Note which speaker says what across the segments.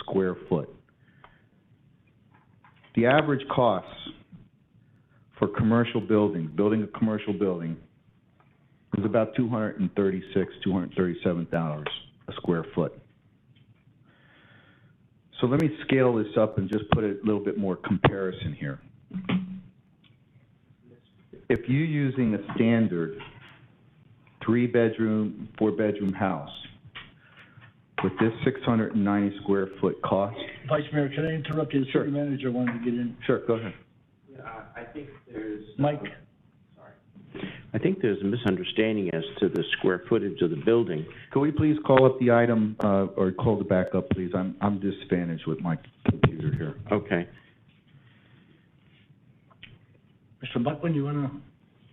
Speaker 1: square foot. The average cost for commercial buildings, building a commercial building, is about two hundred and thirty-six, two hundred and thirty-seven dollars a square foot. So let me scale this up and just put a little bit more comparison here. If you're using a standard three-bedroom, four-bedroom house with this six hundred and ninety square foot cost,
Speaker 2: Vice Mayor, can I interrupt you? The
Speaker 1: Sure.
Speaker 2: city manager wanted to get in.
Speaker 1: sure, go ahead.
Speaker 3: Yeah, I I think there's.
Speaker 2: Mike?
Speaker 4: I think there's a misunderstanding as to the square footage of the building.
Speaker 1: Could we please call up the item, uh, or call the backup, please? I'm, I'm disadvantaged with my computer here.
Speaker 4: Okay.
Speaker 2: Mr. Buckland, you want to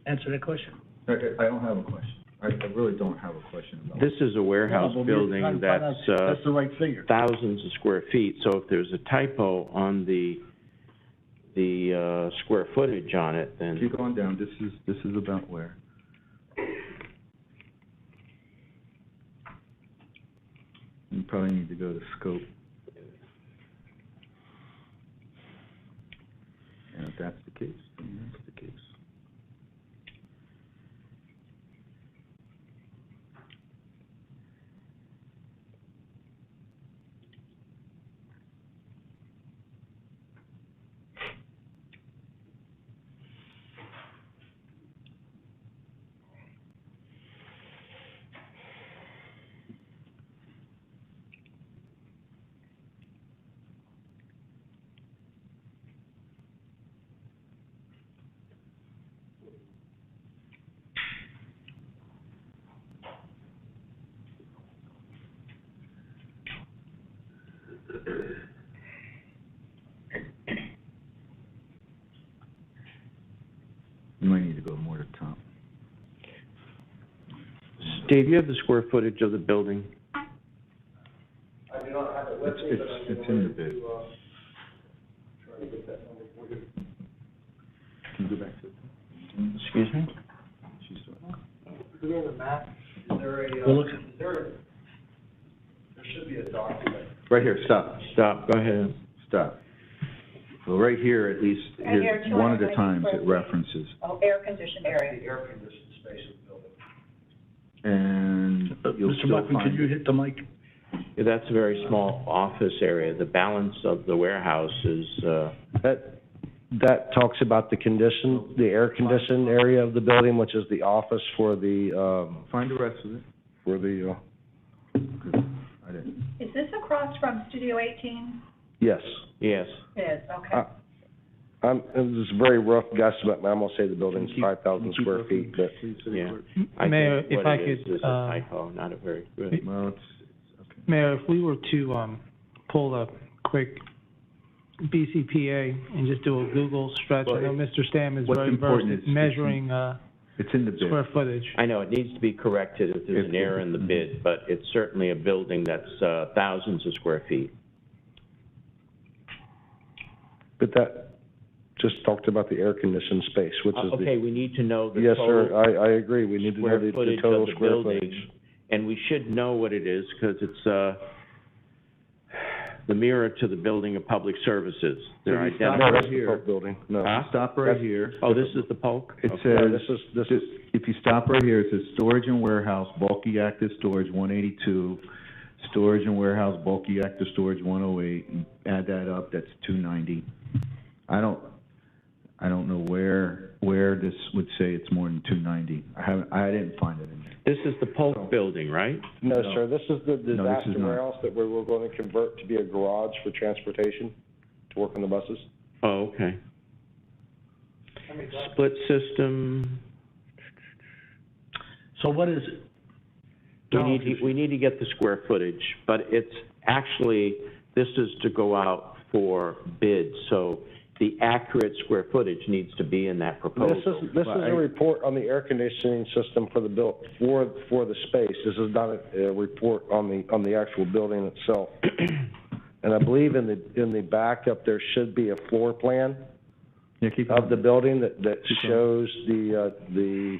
Speaker 2: answer that question?
Speaker 1: I, I don't have a question. I, I really don't have a question about
Speaker 4: This is a warehouse
Speaker 2: Well, we're trying
Speaker 4: building
Speaker 2: to find out
Speaker 4: that's,
Speaker 2: if
Speaker 4: uh,
Speaker 2: That's the right figure.
Speaker 4: thousands of square feet, so if there's a typo on the, the, uh, square footage on it, then,
Speaker 1: Keep going down, this is, this is about where? You probably need to go to scope. And if that's the case, then that's the case. You might need to go more to top.
Speaker 4: Steve, you have the square footage of the building?
Speaker 3: I do not have it with
Speaker 1: It's-
Speaker 3: me, but
Speaker 1: it's-
Speaker 3: I'm
Speaker 1: it's in the
Speaker 3: going
Speaker 1: bid.
Speaker 3: to, uh, try to get that number for you.
Speaker 1: Can you go back to?
Speaker 4: Excuse me?
Speaker 1: She's doing it.
Speaker 3: Is there a map? Is there a,
Speaker 2: We're
Speaker 3: uh,
Speaker 2: looking.
Speaker 3: is there, a- there should be a document.
Speaker 1: Right here, stop,
Speaker 4: Stop, go ahead.
Speaker 1: stop. Well, right here, at least,
Speaker 5: Right here,
Speaker 1: here's one of the
Speaker 5: 290
Speaker 1: times
Speaker 5: square
Speaker 1: it
Speaker 5: feet.
Speaker 1: references.
Speaker 5: Oh, air-conditioned area.
Speaker 3: The air conditioned space of the building.
Speaker 1: And you'll
Speaker 2: Uh, Mr.
Speaker 1: still
Speaker 2: Buckland,
Speaker 1: find
Speaker 2: can you hit the mic?
Speaker 4: Yeah, That's a very small office area, the balance of the warehouse is, uh,
Speaker 6: That, that talks about the condition, the air-conditioned area of the building, which is the office for the, um,
Speaker 1: Find the rest of it.
Speaker 6: for the, uh,
Speaker 1: I didn't.
Speaker 5: Is this across from Studio 18?
Speaker 6: yes.
Speaker 4: yes.
Speaker 5: It is, okay.
Speaker 6: Uh, I'm, this is a very rough guesstimate, I'm gonna say the building's
Speaker 1: Can you keep-
Speaker 6: five thousand
Speaker 1: Keep
Speaker 6: square
Speaker 1: looking,
Speaker 6: feet, but
Speaker 1: please, City
Speaker 4: Yeah.
Speaker 1: Clerk.
Speaker 4: I think
Speaker 7: Mayor, if
Speaker 4: what
Speaker 7: I
Speaker 4: it is
Speaker 7: could,
Speaker 4: is a
Speaker 7: uh,
Speaker 4: typo, not a very good.
Speaker 1: Well, it's, it's, okay.
Speaker 7: Mayor, if we were to um, pull a quick BCPA and just do a Google stretch, I know
Speaker 1: Well,
Speaker 7: Mr. Stam is
Speaker 1: what's
Speaker 7: very versed
Speaker 1: important is-
Speaker 7: at measuring uh,
Speaker 1: It's in the bid.
Speaker 7: square footage.
Speaker 4: I know, it needs to be corrected if there's an error in the
Speaker 6: Mm-hmm.
Speaker 4: bid, but it's certainly a building that's uh, thousands of square feet.
Speaker 6: But that just talked about the air-conditioned space, which is
Speaker 4: Uh,
Speaker 6: the,
Speaker 4: Okay, we need to know the
Speaker 6: yes, sir,
Speaker 4: total
Speaker 6: I, I agree, we need to know
Speaker 4: square
Speaker 6: the the
Speaker 4: footage
Speaker 6: total
Speaker 4: of the
Speaker 6: square footage.
Speaker 4: building. And we should know what it is, because it's uh, the mirror to the building of public services. They're
Speaker 1: Did you stop
Speaker 4: identical.
Speaker 1: right
Speaker 6: that's the
Speaker 1: here.
Speaker 6: Polk building, no.
Speaker 4: Huh?
Speaker 1: Stop right here.
Speaker 4: Oh, this is the Polk?
Speaker 1: It
Speaker 4: Okay.
Speaker 6: No,
Speaker 1: says,
Speaker 6: this is, this is,
Speaker 1: Just- if you stop right here, it says storage and warehouse, bulky active storage, one eighty-two, storage and warehouse, bulky active storage, one oh eight, add that up, that's two ninety. I don't, I don't know where, where this would say it's more than two ninety. I haven't, I didn't find it in there.
Speaker 4: This is the Polk building, right?
Speaker 6: no,
Speaker 1: no.
Speaker 6: sir, this is the disaster
Speaker 1: not.
Speaker 6: warehouse that we were gonna convert to be a garage for transportation, to work on the buses.
Speaker 4: Oh, okay.
Speaker 3: How many doc-
Speaker 4: Split system,
Speaker 2: So what is it?
Speaker 4: we
Speaker 2: No.
Speaker 4: need, to- we need to get the square footage, but it's actually, this is to go out for bid, so the accurate square footage needs to be in that
Speaker 6: This is,
Speaker 4: proposal.
Speaker 6: this is
Speaker 1: Right.
Speaker 6: a report on the air conditioning system for the buil, for, for the space. This is not a, a report on the, on the actual building itself. And I believe in the, in the backup, there should be a floor plan
Speaker 1: Yeah, keep.
Speaker 6: of the building that, that
Speaker 1: Keep going.
Speaker 6: shows the, uh, the,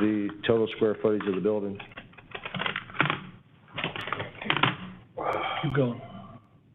Speaker 6: the total square footage of the building.
Speaker 2: Keep going.